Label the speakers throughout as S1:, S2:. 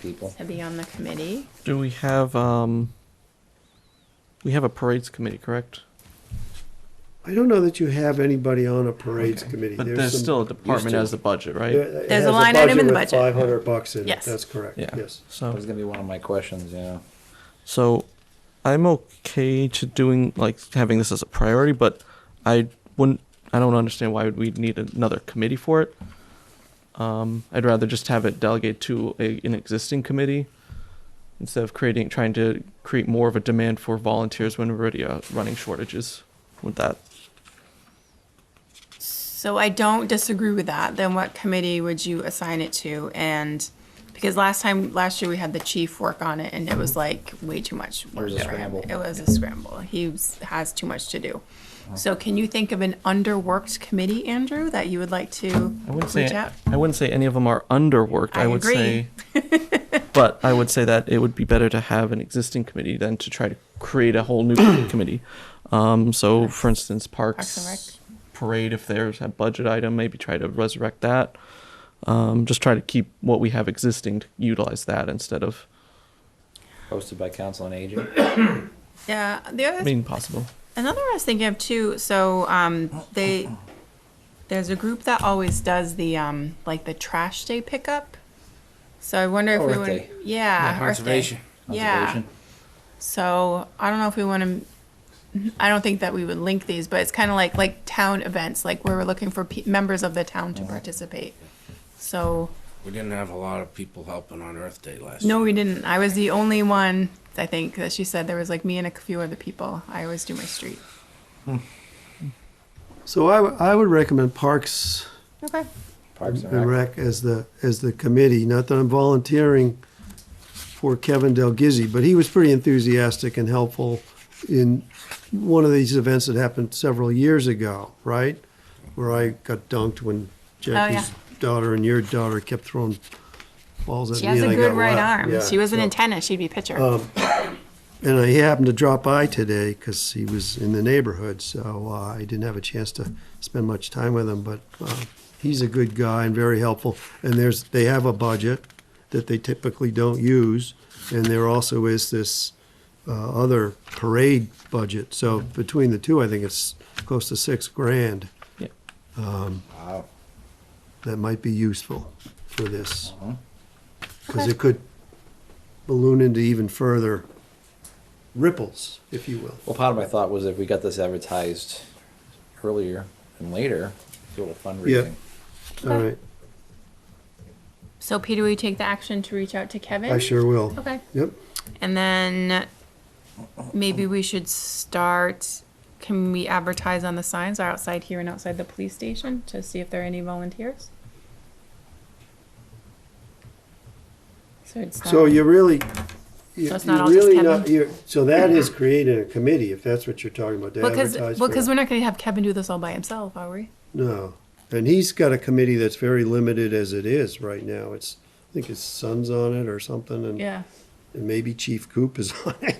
S1: people.
S2: to be on the committee.
S3: Do we have, um, we have a parades committee, correct?
S4: I don't know that you have anybody on a parades committee.
S3: But there's
S4: some-
S3: still a department
S1: to.
S3: as the budget,
S4: there-
S3: right?
S4: it
S2: There's a
S4: has
S2: line item in the budget.
S4: Five hundred bucks in it,
S2: Yes.
S4: that's correct,
S3: Yeah.
S4: yes.
S1: That
S3: So,
S1: was gonna be one of my questions, yeah.
S3: so I'm okay to doing, like, having this as a priority, but I wouldn't, I don't understand why we'd need another committee for it. Um, I'd rather just have it delegate to a, an existing committee instead of creating, trying to create more of a demand for volunteers when we're already uh, running shortages with that.
S2: So I don't disagree with that. Then what committee would you assign it to? And because last time, last year we had the chief work on it and it was like way too much work
S1: was a
S2: for him.
S1: scramble.
S2: It was a scramble. He was- has too much to do. So can you think of an underworked committee, Andrew, that you would like to
S3: I wouldn't
S2: reach
S3: say
S2: out?
S3: I wouldn't say any of them are underworked. I,
S2: I
S3: would
S2: agree.
S3: say, but I would say that it would be better to have an existing committee than to try to create a whole new committee. Um, so, for instance, parks,
S2: Parks and
S3: parade. If there's a budget item, maybe try to resurrect that. Um, just try to keep what we have existing to utilize that instead of
S1: Hosted by Council on Aging.
S2: Yeah, the other
S3: being possible.
S2: Another I was thinking of too. So um, they there's a group that always does the um, like the trash day pickup. So I wonder if
S1: Oh,
S2: we
S1: Earth
S2: want
S1: Day.
S2: yeah, Earth Day.
S5: conservation.
S2: Yeah.
S1: Conservation.
S2: So I don't know if we want to. I don't think that we would link these, but it's kind of like like town events, like where we're looking for pe- members of the town
S1: Uh-huh.
S2: to participate. So
S5: We didn't have a lot of people helping on Earth Day last
S2: no,
S5: year.
S2: we didn't. I was the only one. I think that she said there was like me and a few other people. I always do my street.
S4: So I, w- I would recommend Parks
S2: Okay.
S1: Parks
S4: and Rec as the, as the committee, not that I'm volunteering for Kevin Del Gizzi, but he was pretty enthusiastic and helpful in one of these events that happened several years ago, right? Where I got dunked when
S2: Oh,
S4: Jackie's daughter and your daughter kept throwing balls at
S2: She
S4: me
S2: has
S4: and
S2: a
S4: I
S2: good
S4: got
S2: right
S4: whacked.
S2: arm.
S4: Yeah, Oh.
S2: she wasn't
S4: so-
S2: in tennis. She'd be pitcher.
S4: And I happened to drop by today because he was in the neighborhood, so uh, I didn't have a chance to spend much time with him. But uh, he's a good guy and very helpful. And there's they have a budget that they typically don't use, and there also is this uh, other parade budget. So between the two, I think it's close to six grand
S3: Yeah.
S1: Wow.
S4: that might be useful for this
S1: Mhm.
S4: because it could balloon into even further ripples, if you will.
S1: Well, part of my thought was if we got this advertised earlier and later, do a little fundraising.
S4: All right.
S2: so, Peter, will you take the action to reach out to Kevin?
S4: I sure will.
S2: Okay.
S4: Yep.
S2: And then maybe we should start. Can we advertise on the signs are outside here and outside the police station to see if there are any volunteers? Um, So it's not,
S4: So you're really, you're
S2: it's not
S4: you're
S2: all just
S4: really
S2: Kevin?
S4: not, you're, so that is creating a committee, if that's what you're talking about, to
S2: well, because
S4: advertise
S2: well,
S4: for.
S2: 'cause
S4: it.
S2: we're not going to have Kevin do this all by himself, are we?
S4: No. And he's got a committee that's very limited as it is right now. It's, I think his son's on it or something, and
S2: Yeah.
S4: and maybe Chief Coop is on it.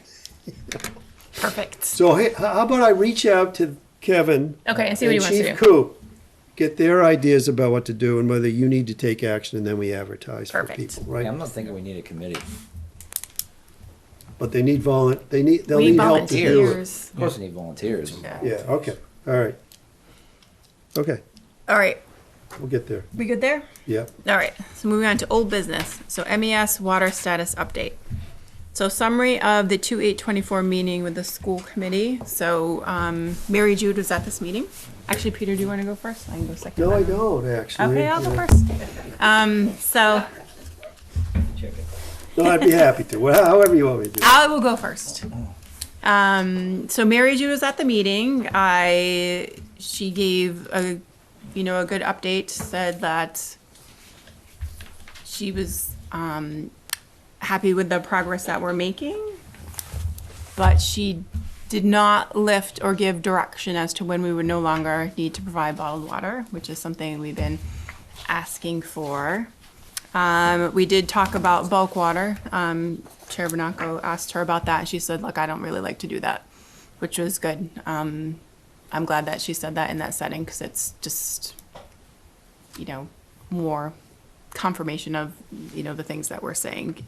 S2: Perfect.
S4: So hey, h- how about I reach out to Kevin
S2: Okay, and see what
S4: and
S2: he wants to
S4: Chief
S2: do.
S4: Coop, get their ideas about what to do and whether you need to take action, and then we advertise for
S2: Perfect.
S4: people,
S1: Yeah, I'm
S4: right?
S1: not thinking we need a committee. Of
S4: But they need volun, they need, they'll
S2: we
S4: need help to do it.
S2: volunteers.
S1: course we need volunteers.
S2: Yeah.
S4: Yeah, okay, all right. Okay,
S2: All right.
S4: we'll get there.
S2: We good there?
S4: Yeah,
S2: All right, so moving on to old business. So MES water status update. So summary of the two eight twenty-four meeting with the school committee. So, um, Mary Jude was at this meeting. Actually, Peter, do you want to go first? I can go second.
S4: no, I don't, actually.
S2: Okay, I'll go
S4: Yeah.
S2: first. Um, so
S4: No, I'd be happy to, Well, however you want me to do it.
S2: I will go first. Um, so Mary Jude was at the meeting. I, she gave a, you know, a good update, said that she was, um, happy with the progress that we're making, but she did not lift or give direction as to when we would no longer need to provide bottled water, which is something we've been asking for. Um, we did talk about bulk water. Um, Chair Bernacco asked her about that. She said, look, I don't really like to do that, which was good. Um, I'm glad that she said that in that setting because it's just, you know, more confirmation of, you know, the things that we're saying